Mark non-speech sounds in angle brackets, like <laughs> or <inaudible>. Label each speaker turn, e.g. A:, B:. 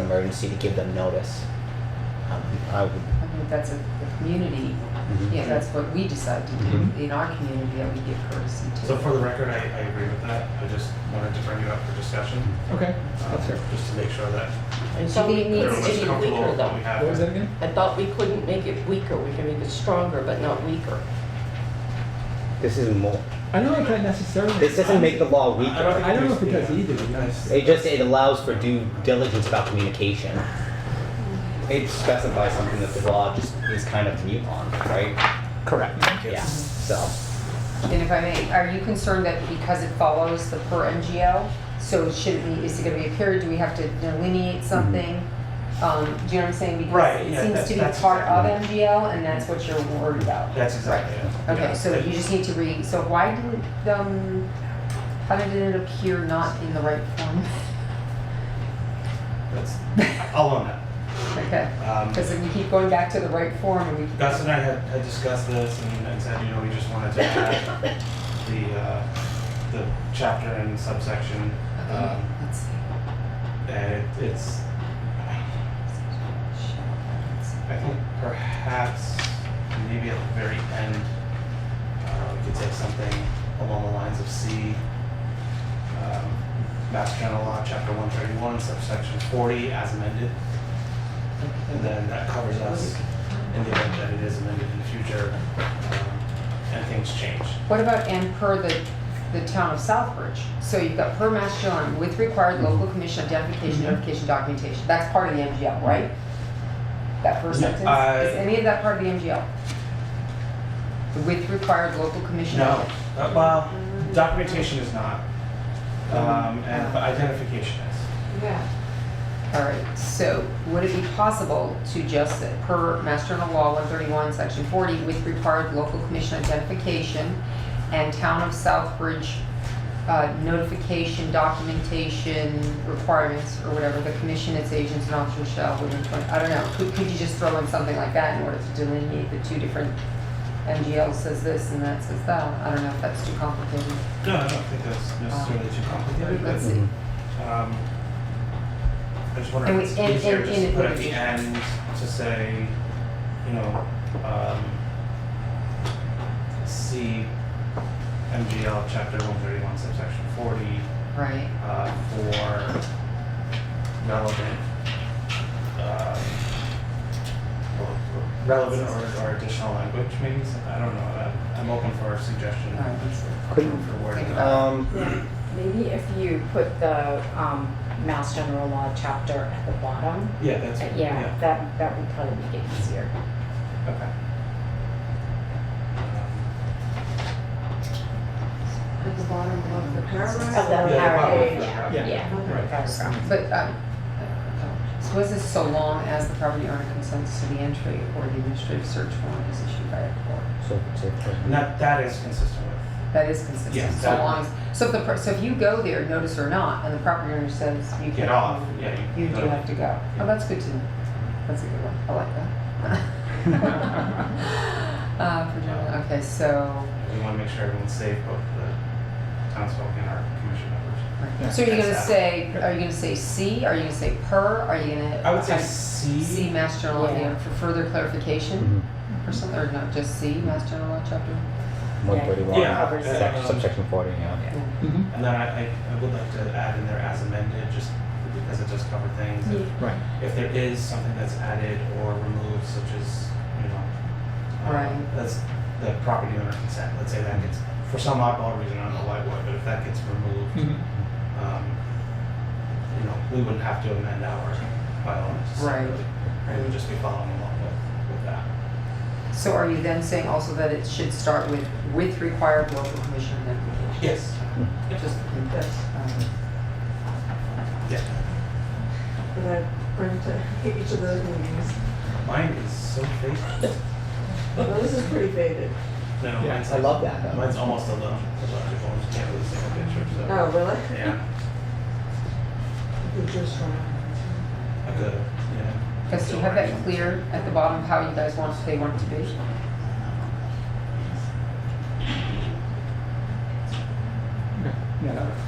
A: emergency to give them notice. Um, I would,
B: I think that's a, the community,
C: Mm-hmm.
B: yeah, that's what we decide to
A: Mhm.
B: do in our community, that we give courtesy to.
C: So for the record, I, I agree with that. I just wanted to bring it up for discussion.
D: Okay.
C: um,
D: That's fair.
C: Just to make sure that
E: I thought it needs
C: everyone's
E: to be
C: comfortable
E: weaker
C: with what we
E: though.
C: have.
D: What was that again?
E: I thought we couldn't make it weaker, we can make it stronger, but not weaker.
A: this isn't more,
D: I don't know if that necessarily.
A: this doesn't make the law
C: I don't
A: weaker.
C: think
D: I don't know
C: we-
D: if it does
C: yeah.
D: either, to be honest.
A: It just, it allows for due diligence about communication. It specifies something that the law just is kind of mute on, right?
D: Correct.
A: Yeah, so.
B: And if I may, are you concerned that because it follows the per NGL, so should we, is it gonna be a period, do we have to delineate something? Um, do you know what I'm saying? Because
C: Mm-hmm. Right, yeah,
B: It
C: that's-
B: seems to be
C: that's
B: part of
C: exactly-
B: NGL, and that's what you're worried about.
C: That's exactly it. Yeah.
B: Okay, so you just need to read, so why didn't, um, how did it appear not in the right form? <laughs>
C: That's- I'll own that.
B: Okay,
C: Um,
B: because we keep going back to the right form and we keep.
C: Gus and I had, had discussed this and, and said, you know, we just wanted to add the, uh, the chapter and subsection.
B: Okay,
C: Um,
B: Let's see.
C: and it- it's, I think perhaps maybe at the very end, uh, we could take something along the lines of C. Um, Mass General Law, Chapter one thirty-one, subsection forty, as amended. And then that covers us in the event that it is amended in the future, um, and things change.
B: What about and per the, the town of Southbridge? So you've got per Mass General and with required local commission identification,
C: Mm-hmm.
B: notification, documentation. That's part of the MGL, right? That first
C: Yeah,
B: sentence?
C: I-
B: Is any of that part of the MGL? The With required local commission?
C: No, uh, well, documentation is not, um, and but identification is.
E: Yeah.
B: All right, so would it be possible to just, uh, per Mass General Law 131, Section 40, with required local commission identification and Town of Southbridge uh, notification, documentation requirements, or whatever, the commission, its agents, and officers shall, within 20, I don't know, could, could you just throw in something like that in order to delineate the two different, MGL says this and that says that? I don't know if that's too complicated.
C: No, I don't think that's necessarily too complicated,
B: Let's
C: but,
B: see.
C: um, I just wonder
B: And
C: if
B: we-
C: it's
B: and-
C: easier
B: and-
C: just
B: and
C: to
B: it
C: put
B: would
C: at the
B: be-
C: end to say, you know, um, see MGL chapter one thirty-one subsection forty,
B: Right.
C: uh, for relevant, um, or- relevant or, or additional language, maybe, so- I don't know, I'm- I'm open for suggestion
B: All right, Uh, let's see.
A: Couldn't-
C: for wording.
B: Think about
A: Um,
F: Yeah, maybe if you put the um, Mass General Law chapter at the bottom,
C: Yeah, that's,
F: uh,
C: yeah.
F: yeah, that, that would probably make it easier.
C: Okay.
E: At the bottom of the
F: Of
E: paragraph.
F: the
C: Yeah,
F: paragraph,
C: yeah,
F: yeah,
C: yeah. Right.
F: yeah, paragraph.
B: But, um, so was this so long as the property owner consents to the entry or the administrative search warrant is issued by a court?
A: so, so-
C: And that, that is consistent with,
B: That is consistent,
C: Yes,
B: so
C: that-
B: long as, so if the, per- so if you go there, notice or not, and the property owner says you can.
C: get off, yeah.
B: You do
C: don't-
B: have to go. Oh, that's good to know. That's a good one. I like that.
C: <laughs>
B: Uh, for general- okay, so,
C: We wanna make sure everyone's safe, both the townsfolk and our commission members.
B: so are you gonna
C: That's that.
B: say, are you gonna say C, are you gonna say per, are you gonna?
C: I would say C.
B: C, Mass General, Law,
F: Yeah.
B: yeah, for further clarification
A: Mm-hmm.
B: or something, or not just C, Mass General Law chapter?
A: One thirty-one.
C: Yeah,
F: covers
C: it.
A: Subsection forty, yeah.
D: Mhm.
C: And then I, I, I would like to add in there as amended, just because it does cover things. If-
D: Right.
C: If there is something that's added or removed, such as, you know, um,
B: Right.
C: that's the property owner consent, let's say that gets, for some oddball reason, I don't know why, why, but if that gets removed,
D: Mhm.
C: um, you know, we wouldn't have to amend our bylaw necessarily. We would just be following along with, with that.
B: So are you then saying also that it should start with, with required local commission notification?
C: Yes. Just,
B: Um,
C: yeah.
G: And I print to each of those movies.
C: Mine is so faded.
G: Well, this is pretty faded.
C: No,
D: Yeah,
C: mine's
A: I
C: like-
A: love that, though.
C: Mine's almost a little, illogical. You can't really see a picture, so.
G: Oh, really?
C: Yeah.
G: It just went.
C: I could, yeah.
B: Because you have that clear at the bottom of how you guys want, they want it to be?
D: Okay. Yeah, that works.